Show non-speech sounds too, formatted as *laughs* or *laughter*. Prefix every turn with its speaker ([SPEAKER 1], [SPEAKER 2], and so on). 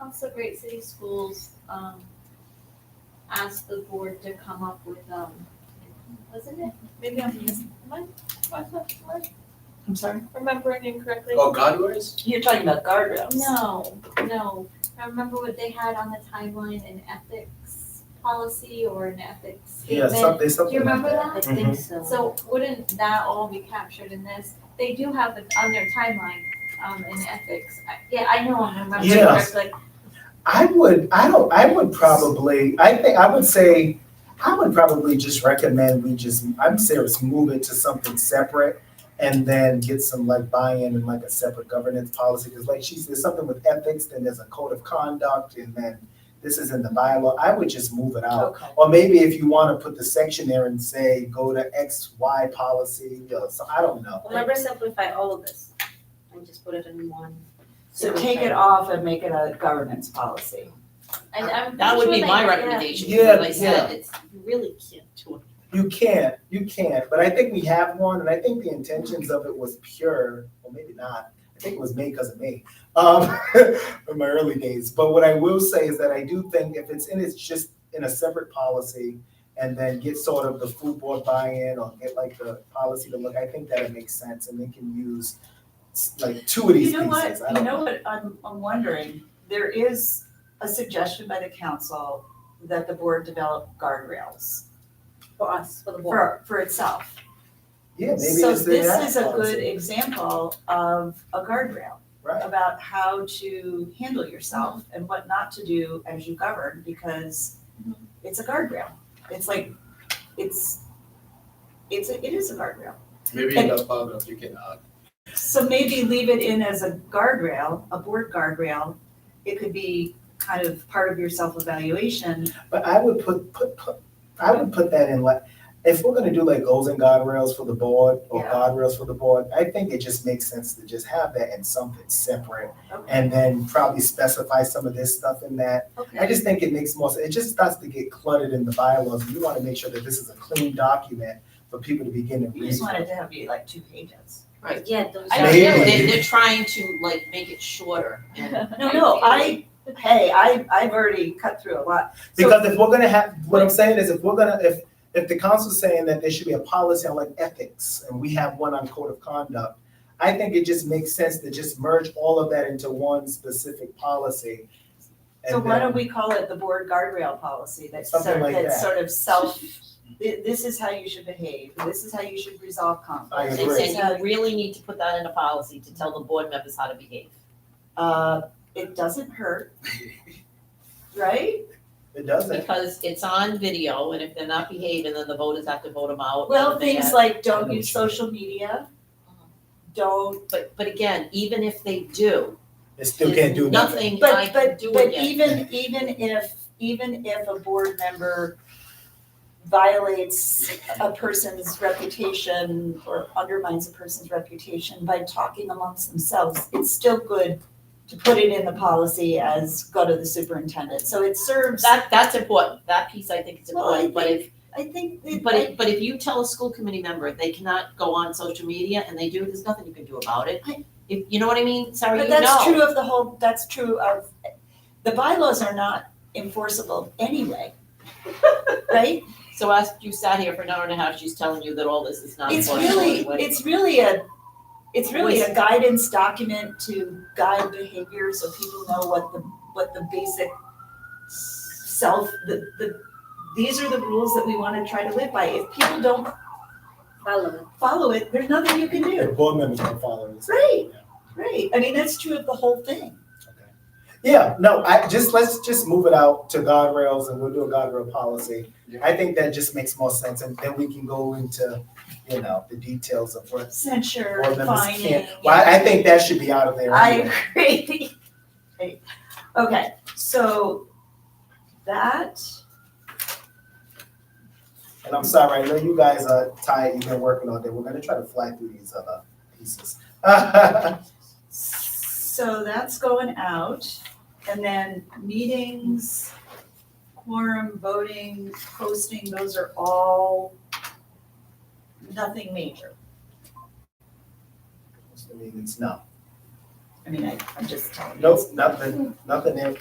[SPEAKER 1] Also, Great City Schools, um, asked the board to come up with, um, wasn't it? Maybe I'm mis- am I- am I- am
[SPEAKER 2] I'm sorry?
[SPEAKER 1] I remembering incorrectly?
[SPEAKER 3] Oh, guardrails?
[SPEAKER 2] You're talking about guardrails.
[SPEAKER 1] No, no. I remember what they had on the timeline, an ethics policy or an ethics
[SPEAKER 4] Yeah,
[SPEAKER 1] statement.
[SPEAKER 4] something, something.
[SPEAKER 1] Do you remember that?
[SPEAKER 2] I
[SPEAKER 4] Mm-hmm.
[SPEAKER 2] think so.
[SPEAKER 1] So wouldn't that all be captured in this? They do have it on their timeline, um, in ethics. I- Yeah, I know, I'm remembering
[SPEAKER 4] Yes.
[SPEAKER 1] correctly.
[SPEAKER 4] I would, I don't, I would probably, I think, I would say, I would probably just recommend we just, I'm serious, move it to something separate and then get some like buy-in and like a separate governance policy, because like she said, something with ethics, then there's a code of conduct, and then this is in the bylaw, I would just move it out.
[SPEAKER 2] Okay.
[SPEAKER 4] Or maybe if you wanna put the section there and say, go to X, Y policy, you know, so I don't know.
[SPEAKER 5] Remember simplify all of this and just put it in one.
[SPEAKER 2] So take it off and make it a governance policy.
[SPEAKER 1] And I'm.
[SPEAKER 6] That would
[SPEAKER 1] sure
[SPEAKER 6] be
[SPEAKER 1] they-
[SPEAKER 6] my
[SPEAKER 1] yeah.
[SPEAKER 6] recommendation,
[SPEAKER 4] Yeah,
[SPEAKER 6] because like I said, it's, you really can't do it.
[SPEAKER 4] You can't, you can't, but I think we have one, and I think the intentions of it was pure, or maybe not. I think it was made because of me, um, *laughs* in my early days. But what I will say is that I do think if it's in, it's just in a separate policy, and then get sort of the food board buy-in or get like the policy to look. I think that it makes sense, and they can use s- like two of these
[SPEAKER 2] You know what,
[SPEAKER 4] pieces. I
[SPEAKER 2] you
[SPEAKER 4] don't
[SPEAKER 2] know what, I'm, I'm wondering, there is a suggestion by the council that the board develop guardrails
[SPEAKER 5] For us, for the board.
[SPEAKER 2] for, for itself.
[SPEAKER 4] Yeah, maybe
[SPEAKER 2] So
[SPEAKER 4] it's in that
[SPEAKER 2] this is a
[SPEAKER 4] policy.
[SPEAKER 2] good example of a guardrail.
[SPEAKER 4] Right.
[SPEAKER 2] About how to handle yourself and what not to do as you govern, because
[SPEAKER 1] Mhm.
[SPEAKER 2] it's a guardrail. It's like, it's, it's, a- it is a guardrail.
[SPEAKER 3] Maybe in the paragraph you can uh, add.
[SPEAKER 2] So maybe leave it in as a guardrail, a board guardrail. It could be kind of part of your self-evaluation.
[SPEAKER 4] But I would put, put, put, I would put that in like, if we're gonna do like goals and guardrails for the board or
[SPEAKER 2] Yeah.
[SPEAKER 4] guardrails for the board, I think it just makes sense to just have that in something separate.
[SPEAKER 2] Okay.
[SPEAKER 4] And then probably specify some of this stuff in that. I
[SPEAKER 2] Okay.
[SPEAKER 4] just think it makes more, sense. it just starts to get cluttered in the bylaws. and You wanna make sure that this is a clean document for people to begin to
[SPEAKER 2] You
[SPEAKER 4] read.
[SPEAKER 2] just want it to have be like two pages.
[SPEAKER 5] Yeah, those.
[SPEAKER 6] I don't know,
[SPEAKER 4] Maybe.
[SPEAKER 6] they, they're trying to like make it shorter and
[SPEAKER 2] No, no, I, hey, I, I've already cut through a lot. So-
[SPEAKER 4] Because if we're gonna have, what I'm saying is if we're gonna, if, if the council's saying that there should be a policy on like ethics and we have one on code of conduct, I think it just makes sense to just merge all of that into one specific policy.
[SPEAKER 2] So
[SPEAKER 4] and
[SPEAKER 2] why
[SPEAKER 4] then-
[SPEAKER 2] don't we call it the board guardrail policy, that's sort,
[SPEAKER 4] Something like
[SPEAKER 2] that's
[SPEAKER 4] that.
[SPEAKER 2] sort of self, thi- this is how you should behave, this is how you should resolve
[SPEAKER 4] I
[SPEAKER 2] conflicts.
[SPEAKER 6] and
[SPEAKER 4] agree.
[SPEAKER 2] This is how-
[SPEAKER 6] you really need to put that in a policy to tell the board members how to behave.
[SPEAKER 2] Uh, it doesn't
[SPEAKER 4] *laughs*
[SPEAKER 2] hurt, right?
[SPEAKER 4] It doesn't.
[SPEAKER 6] Because it's on video and if they're not behaving, then the voters have to vote them out.
[SPEAKER 2] Well,
[SPEAKER 6] and they
[SPEAKER 2] things
[SPEAKER 6] have-
[SPEAKER 2] like don't
[SPEAKER 4] know
[SPEAKER 2] use
[SPEAKER 4] what you mean.
[SPEAKER 2] social media, don't,
[SPEAKER 6] But, but again, even if they do,
[SPEAKER 4] It still can't
[SPEAKER 6] there's
[SPEAKER 4] do nothing.
[SPEAKER 6] nothing
[SPEAKER 2] but,
[SPEAKER 6] I can
[SPEAKER 2] but,
[SPEAKER 6] do
[SPEAKER 2] but
[SPEAKER 6] again.
[SPEAKER 2] even, even if, even if a board member violates a person's reputation or undermines a person's reputation by talking amongst themselves, it's still good to put it in the policy as go to the superintendent, so it serves, I
[SPEAKER 6] That, that's important, that piece I think is
[SPEAKER 2] Well, I
[SPEAKER 6] important, but if,
[SPEAKER 2] think, it-
[SPEAKER 6] but if, but if you tell a school committee member they cannot go on social media and they do, there's nothing you can do about it.
[SPEAKER 2] I-
[SPEAKER 6] If, you know what I mean? Sarah,
[SPEAKER 2] But
[SPEAKER 6] you know.
[SPEAKER 2] that's true of the whole, that's true of, the bylaws are not enforceable anyway. *laughs* Right?
[SPEAKER 6] So as you sat here for an hour and a half, she's telling you that all this is not
[SPEAKER 2] It's
[SPEAKER 6] enforceable
[SPEAKER 2] really,
[SPEAKER 6] anyway.
[SPEAKER 2] it's really a, it's really a guidance document to guide behavior so people know what the, what the basic self, the, the, these are the rules that we wanna try to live by. If people don't
[SPEAKER 5] Follow it.
[SPEAKER 2] follow it, there's nothing you can
[SPEAKER 4] The
[SPEAKER 2] do.
[SPEAKER 4] board members can follow this.
[SPEAKER 2] Right, right. I mean, that's true of the whole thing.
[SPEAKER 4] Yeah, no, I just, let's just move it out to guardrails and we'll do a guardrail policy.
[SPEAKER 3] Yeah.
[SPEAKER 4] I think that just makes more sense and then we can go into, you know, the details of what
[SPEAKER 2] Censure,
[SPEAKER 4] board members
[SPEAKER 2] fining.
[SPEAKER 4] can't. Well, I I think that should be out of there. anyway.
[SPEAKER 2] I agree. *laughs* Right. Okay, so that,
[SPEAKER 4] And I'm sorry, I know you guys are tired, you've been working all day, we're gonna try to fly through these other pieces. *laughs*
[SPEAKER 2] so that's going out. And then meetings, quorum, voting, posting, those are all nothing major.
[SPEAKER 4] Meetings, no,
[SPEAKER 2] I mean, I, I'm just telling you.
[SPEAKER 4] nope, nothing, nothing there.